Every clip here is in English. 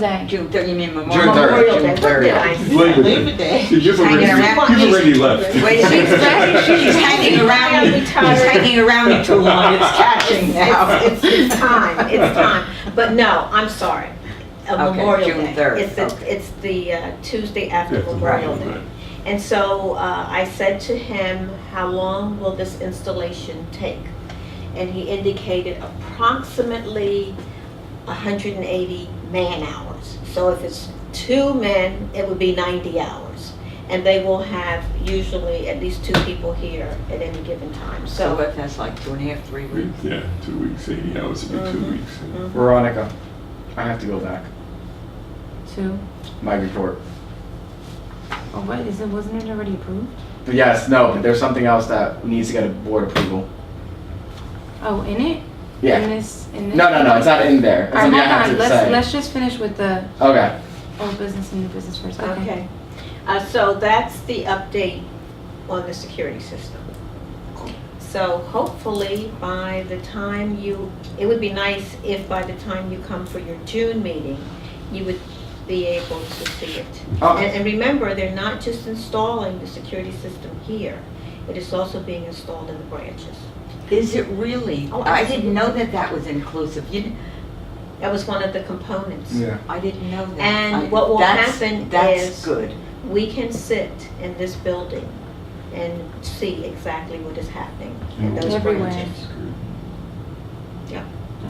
Day. June 30, you mean June Memorial? third, Memorial Day. June What third. did I say? Labor Day. Labor Day. You've already, Hanging around. you've already left. Wait, she's, she's hanging around, me- she's hanging around me too long, it's catching now. It's, it's time, it's time. But no, I'm sorry. A Okay, Memorial June Day. third, It's the, okay. it's the uh, Tuesday after After Memorial Memorial Day. Day. And so uh, I said to him, how long will this installation take? And he indicated approximately 180 man-hours. So if it's two men, it would be 90 hours. And they will have usually at least two people here at any given time. So what, that's like two and a half, three We- weeks? Mm-hmm. Yeah, two weeks, 80 hours would be Mm-hmm. two weeks. Veronica, I have to go back. Two. My report. Oh, what is it? Wasn't it already approved? But yes, no, but there's something else that needs to get a board approval. Oh, in it? In Yeah. this? In this? No, no, no, it's not in there. It's All right, something I have hold on. to Let's say. let's just finish with the Okay. old business and new business first. Okay. Okay, Uh, so that's the update on the security system. So hopefully by the time you, it would be nice if by the time you come for your June meeting, you would be able to see it. And, Okay. and remember, they're not just installing the security system here, it is also being installed in the branches. Is it really? Oh, I didn't know that that was inclusive. You, didn't- That was one of the components. I didn't know that. And I- what will that's- happen That's is- good. We can sit in this building and see exactly what is happening in Mm. those Everywhere. branches.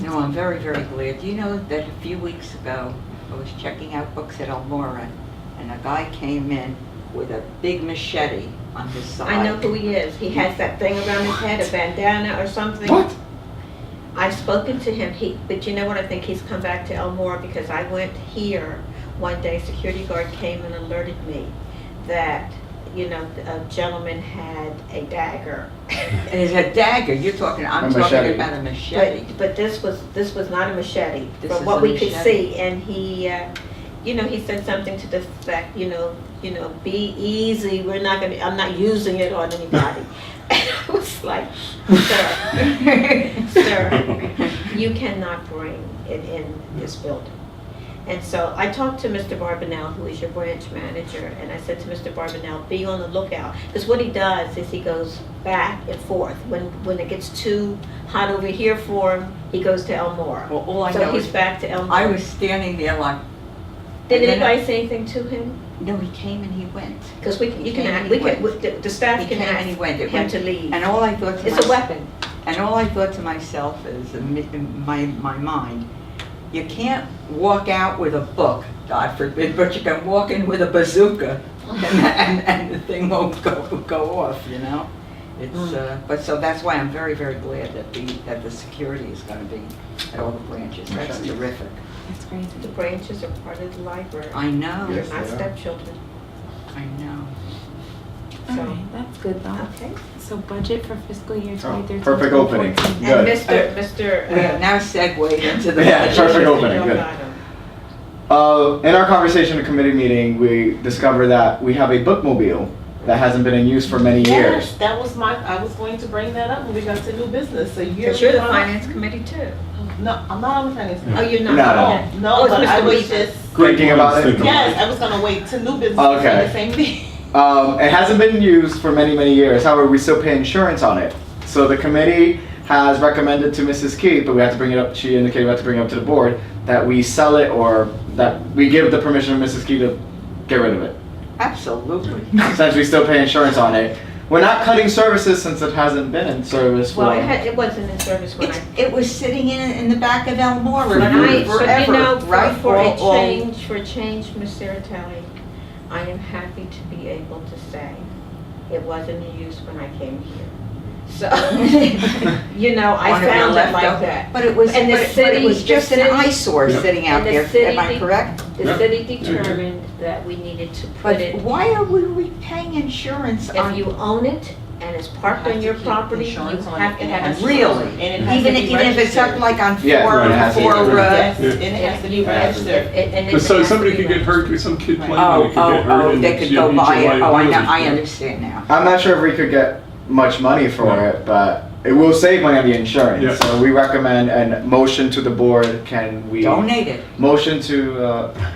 No, I'm very, very glad. You know that a few weeks ago, I was checking out books at Elmora, and a guy came in with a big machete on his side. I know who he is. He has that thing around his head, a bandana or something. What? I've spoken to him. He, but you know what? I think he's come back to Elmore because I went here one day. Security guard came and alerted me that you know a gentleman had a dagger. And it's a dagger. You're talking, A I'm machete. talking about a machete. But, but this was, this was not a machete, This from is what a we could machete. see, and he, uh, you know, he said something to the fact, you know, you know, be easy, we're not gonna, I'm not using it on anybody. And I was like, sir, sir, you cannot bring it in this building. And so I talked to Mr. Barbanel, who is your branch manager, and I said to Mr. Barbanel, be on the lookout. Because what he does is he goes back and forth. When, when it gets too hot over here for him, he goes to Elmore. Well, all Oh, I So know he's is, back to Elmore. I was standing there like, Did and then- anybody say anything to him? no, he came and he went. Because we, can- you He can, came act- and we he can, went. the the staff He can came and he went. ask It him went- to leave. And all I thought to It's a myself, weapon. and all I thought to myself is, in me- in my, my mind, you can't walk out with a book, God forbid, but you can walk in with a bazooka and, and, and the thing won't go, go off, you know? Hmm. It's, uh, but so that's why I'm very, very glad that the, that the security is gonna be at all the branches. That's Machete. terrific. That's great. The branches are part of the library. I know, Yes, they My are. stepchildren, I know. All so, right, that's good though. okay. So budget for fiscal year 2013. Oh, perfect opening. 2014. And Good. Mr. Mr. We have uh, now segued into the. Yeah, Mr. perfect opening, good. Delgado. Uh, in our conversation at committee meeting, we discovered that we have a bookmobile that hasn't been in use for many years. Yes, that was my, I was going to bring that up when we got to new business, a year. But you're the ago. finance committee too. No, I'm not on the finance. Oh, you're not. No, no. Okay. No, Oh, no, it's but I Mr. was Weezer. just, Thinking about it. yes, I was gonna wait to new business for Okay. the same thing. Um, it hasn't been used for many, many years. However, we still pay insurance on it. So the committee has recommended to Mrs. Keith, but we have to bring it up, she indicated we have to bring it up to the board, that we sell it or that we give the permission of Mrs. Keith to get rid of it. Absolutely. Since we still pay insurance on it. We're not cutting services since it hasn't been in service for. Well, it had, it wasn't in service when I, It's, it was sitting in, in the back of Elmore For when I, years. but you know, forever, right? for- for a All- all- change, for a change, Ms. Saratelli, I am happy to be able to say it wasn't in use when I came here. So, you know, I One of your found it like leftover- that. But it was, but And the it but it was city- the just an city- eyesore Yeah. sitting out And the there, am I city- correct? Yeah. The city determined that we needed to put But it, why are we we paying insurance on? if you own it and it's parked You have on to your keep property, you insurance on it have to and have it has insurance. to be Really? And it has to Even, be even if it's up registered. like on Yeah, four, right, it has to be four, uh, Yes, Yeah. and it has to be Yeah. registered. It- and it But so has to somebody be could get registered. hurt, could- some kid playing, oh, could oh, get hurt. oh, and they could you'd go be buy it, oh, I know, liability. I understand now. I'm not sure if we could get much money for No. it, but It will save money on the insurance. Yeah. So we recommend and motion to the board. Can we Donate it. motion to? Uh,